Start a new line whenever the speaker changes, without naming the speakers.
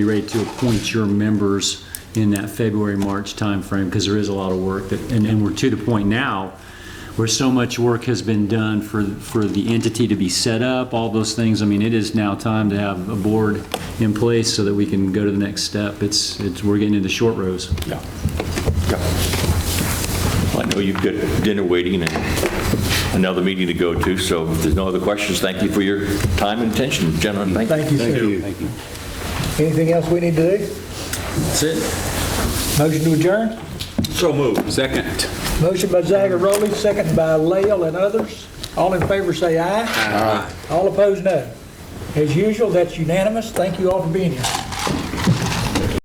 be ready to appoint your members in that February, March timeframe, because there is a lot of work that, and, and we're to the point now where so much work has been done for, for the entity to be set up, all those things. I mean, it is now time to have a board in place so that we can go to the next step. It's, it's, we're getting into short rows.
Yeah. Yeah. I know you've got dinner waiting and another meeting to go to, so if there's no other questions, thank you for your time and attention, gentlemen. Thank you.
Thank you, sir.
Thank you.
Anything else we need to do?
That's it.
Motion to adjourn?
So moved. Second.
Motion by Zagaroli, second by Lael and others. All in favor, say aye. Aye. All opposed, no. As usual, that's unanimous. Thank you all for being here.